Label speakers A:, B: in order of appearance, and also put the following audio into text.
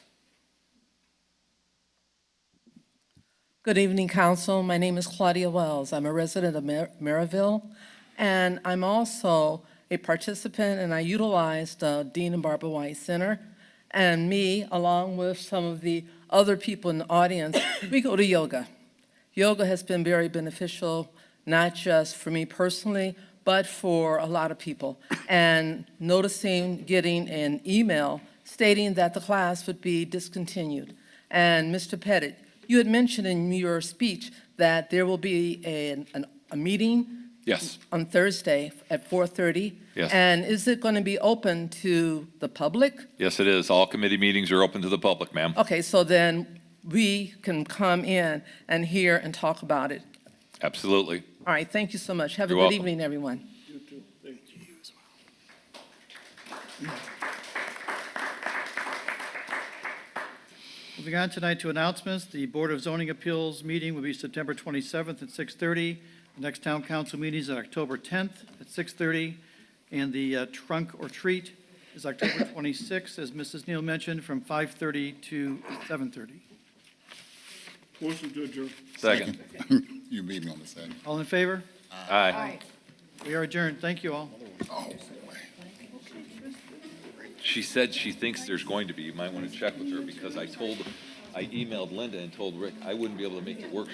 A: Good evening, council. My name is Claudia Wells. I'm a resident of Mar- Maryville, and I'm also a participant, and I utilize the Dean and Barbara White Center. And me, along with some of the other people in the audience, we go to yoga. Yoga has been very beneficial, not just for me personally, but for a lot of people. And noticing getting an email stating that the class would be discontinued. And Mr. Pettit, you had mentioned in your speech that there will be an, an, a meeting
B: Yes.
A: on Thursday at 4:30.
B: Yes.
A: And is it going to be open to the public?
B: Yes, it is. All committee meetings are open to the public, ma'am.
A: Okay, so then we can come in and hear and talk about it.
B: Absolutely.
A: All right, thank you so much. Have a
B: You're
A: good
B: welcome.
A: evening, everyone.
C: Moving on tonight to announcements, the Board of Zoning Appeals meeting will be September 27th at 6:30. The next town council meeting is on October 10th at 6:30. And the uh, trunk or treat is October 26th, as Mrs. Neal mentioned, from 5:30 to 7:30.
D: Motion to adjourn.
B: Second.
E: You beat me on the second.
C: All in favor?
B: Aye.
C: We are adjourned. Thank you all.
E: Oh, boy.
B: She said she thinks there's going to be. You might want to check with her because I told, I emailed Linda and told Rick I wouldn't be able to make the workshop.